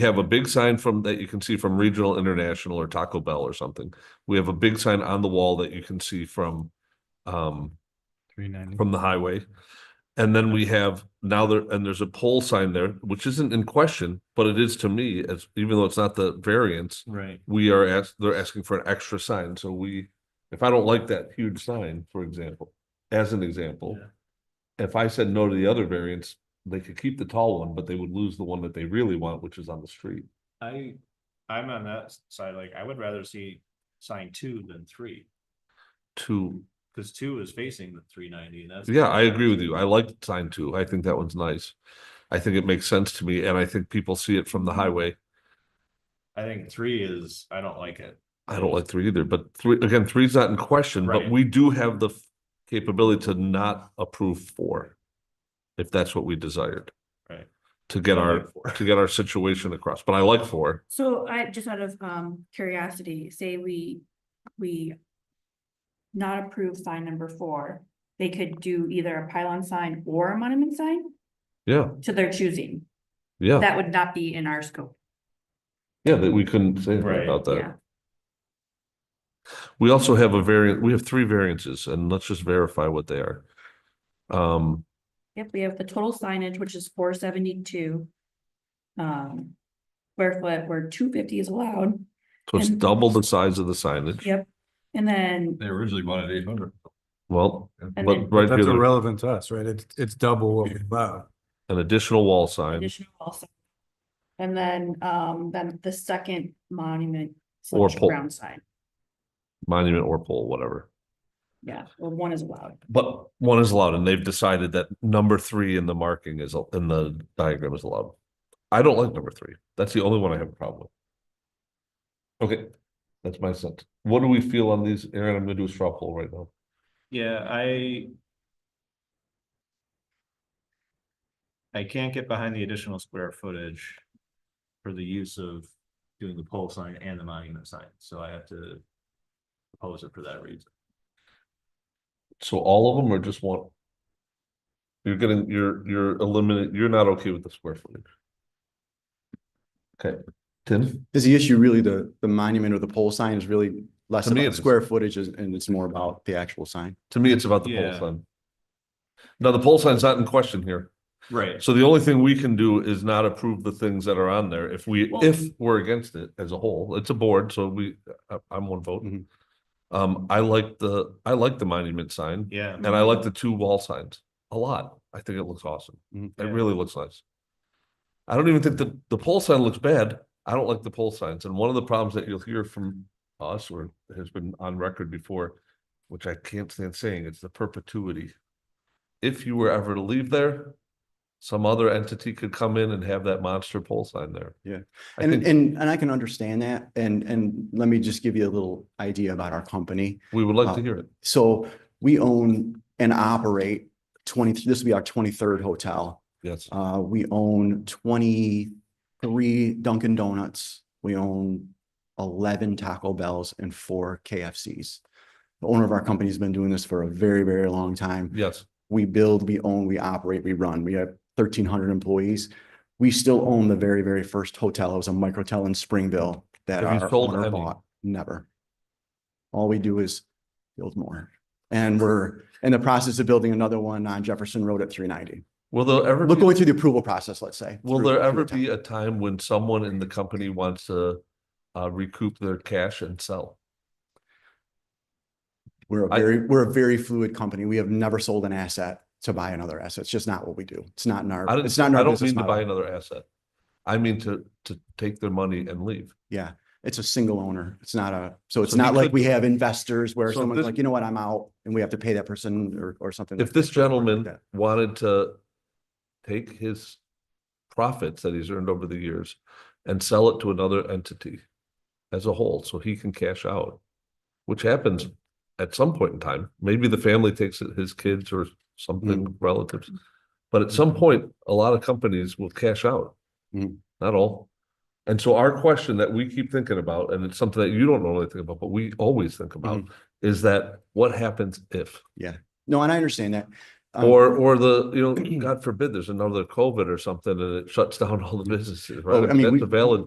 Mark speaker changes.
Speaker 1: have a big sign from, that you can see from Regional International or Taco Bell or something. We have a big sign on the wall that you can see from, um,
Speaker 2: Three ninety.
Speaker 1: from the highway. And then we have now there, and there's a pole sign there, which isn't in question, but it is to me, as, even though it's not the variance,
Speaker 2: Right.
Speaker 1: we are asked, they're asking for an extra sign, so we, if I don't like that huge sign, for example, as an example, if I said no to the other variants, they could keep the tall one, but they would lose the one that they really want, which is on the street.
Speaker 3: I, I'm on that s- side, like, I would rather see sign two than three,
Speaker 1: To,
Speaker 3: cause two is facing the three ninety, and that's.
Speaker 1: yeah, I agree with you. I like sign two. I think that one's nice. I think it makes sense to me, and I think people see it from the
Speaker 3: Mm-hmm.
Speaker 1: highway.
Speaker 3: I think three is, I don't like it.
Speaker 1: I don't like three either, but three, again, three's not in question, but
Speaker 3: Right.
Speaker 1: we do have the f- capability to not approve four. If that's what we desired.
Speaker 3: Right.
Speaker 1: To get
Speaker 3: I
Speaker 1: our,
Speaker 3: like four.
Speaker 1: to get our situation across, but I like four.
Speaker 4: So I just out of um curiosity, say we, we. Not approve sign number four, they could do either a pylon sign or a monument sign
Speaker 1: Yeah,
Speaker 4: to their choosing.
Speaker 1: yeah,
Speaker 4: That would not be in our scope,
Speaker 1: yeah, that we couldn't say anything
Speaker 3: Right.
Speaker 1: about
Speaker 4: yeah.
Speaker 1: that. We also have a variant, we have three variances and let's just verify what they are. Um,
Speaker 4: Yep, we have the total signage, which is four seventy-two. Um, square foot where two fifty is allowed,
Speaker 1: so it's
Speaker 4: And-
Speaker 1: double the size of the signage.
Speaker 4: yep, and then,
Speaker 2: They originally wanted eight hundred.
Speaker 1: Well,
Speaker 4: And
Speaker 1: but
Speaker 4: then-
Speaker 1: right
Speaker 5: That's
Speaker 1: here,
Speaker 5: irrelevant to us, right? It's, it's double what we allow.
Speaker 1: an additional wall sign
Speaker 4: additional also. And then, um, then the second monument
Speaker 1: Or
Speaker 4: slash
Speaker 1: pole.
Speaker 4: ground sign,
Speaker 1: monument or pole, whatever.
Speaker 4: yeah, or one is allowed.
Speaker 1: But one is allowed, and they've decided that number three in the marking is, al- in the diagram is allowed. I don't like number three. That's the only one I have a problem with. Okay, that's my sense. What do we feel on these, Aaron? I'm gonna do a straw poll right now.
Speaker 3: Yeah, I. I can't get behind the additional square footage. For the use of doing the pole sign and the monument sign, so I have to. Oppose it for that reason.
Speaker 1: So all of them or just one? You're getting, you're, you're eliminating, you're not okay with the square footage. Okay, Tim,
Speaker 6: Is the issue really the, the monument or the pole sign is really less
Speaker 1: To me,
Speaker 6: about
Speaker 1: it is.
Speaker 6: square footage is- and it's more about the actual sign?
Speaker 1: to me, it's about the pole
Speaker 3: Yeah.
Speaker 1: sign. Now, the pole sign's not in question here.
Speaker 3: Right.
Speaker 1: So the only thing we can do is not approve the things that are on there. If we,
Speaker 4: Well-
Speaker 1: if we're against it as a whole, it's a board, so we, I- I'm one vote.
Speaker 6: Mhm.
Speaker 1: Um, I like the, I like the monument sign
Speaker 3: Yeah,
Speaker 1: and I like the two wall signs a lot. I think it looks awesome.
Speaker 6: Mhm.
Speaker 1: It
Speaker 3: Yeah.
Speaker 1: really looks nice. I don't even think the, the pole sign looks bad. I don't like the pole signs. And one of the problems that you'll hear from us or has been on record before, which I can't stand saying, it's the perpetuity. If you were ever to leave there, some other entity could come in and have that monster pole sign there.
Speaker 6: Yeah.
Speaker 1: I
Speaker 6: And,
Speaker 1: think
Speaker 6: and, and I can understand that. And, and let me just give you a little idea about our company.
Speaker 1: we would
Speaker 6: Uh,
Speaker 1: like to hear it.
Speaker 6: So we own and operate twenty, this will be our twenty-third hotel.
Speaker 1: Yes.
Speaker 6: Uh, we own twenty-three Dunkin' Donuts. We own eleven Taco Bells and four KFCs. The owner of our company's been doing this for a very, very long time.
Speaker 1: Yes.
Speaker 6: we build, we own, we operate, we run. We have thirteen hundred employees. We still own the very, very first hotel. It was a microtel in Springville that
Speaker 1: Have you
Speaker 6: our
Speaker 1: sold
Speaker 6: owner
Speaker 1: any?
Speaker 6: bought. Never. All we do is build more. And we're in the process of building another one on Jefferson Road at three ninety.
Speaker 1: Will there ever,
Speaker 6: Look,
Speaker 1: be-
Speaker 6: going through the approval process, let's say.
Speaker 1: will
Speaker 6: through-
Speaker 1: there
Speaker 6: through
Speaker 1: ever
Speaker 6: the town.
Speaker 1: be a time when someone in the company wants to uh, recoup their cash and sell?
Speaker 6: We're a
Speaker 1: I-
Speaker 6: very, we're a very fluid company. We have never sold an asset to buy another asset. It's just not what we do. It's not in our,
Speaker 1: I
Speaker 6: it's
Speaker 1: didn't,
Speaker 6: not in
Speaker 1: I
Speaker 6: our
Speaker 1: don't
Speaker 6: business
Speaker 1: mean to buy
Speaker 6: model.
Speaker 1: another asset. I mean to, to take their money and leave.
Speaker 6: Yeah, it's a single owner. It's not a, so it's
Speaker 1: So he
Speaker 6: not like
Speaker 1: could-
Speaker 6: we have investors where
Speaker 1: So if
Speaker 6: someone's
Speaker 1: this-
Speaker 6: like, you know what, I'm out and we have to pay that person or, or something.
Speaker 1: If
Speaker 6: like
Speaker 1: this
Speaker 6: that.
Speaker 1: gentleman
Speaker 6: Yeah.
Speaker 1: wanted to take his profits that he's earned over the years and sell it to another entity as a whole, so he can cash out, which happens at some point in time. Maybe the family takes it, his kids or
Speaker 6: Mm.
Speaker 1: something relatives. But at
Speaker 6: Mm-hmm.
Speaker 1: some point, a lot of companies will cash out.
Speaker 6: Mhm.
Speaker 1: Not all. And so our question that we keep thinking about, and it's something that you don't normally think about,
Speaker 6: Mm-hmm.
Speaker 1: but we always think about, is that what happens if?
Speaker 6: No, and I understand that. Um, I'm-
Speaker 1: Or, or the, you know, God forbid, there's another COVID or something and it shuts down all the businesses,
Speaker 6: Oh,
Speaker 1: right?
Speaker 6: I mean,
Speaker 1: That's
Speaker 6: we-
Speaker 1: a valid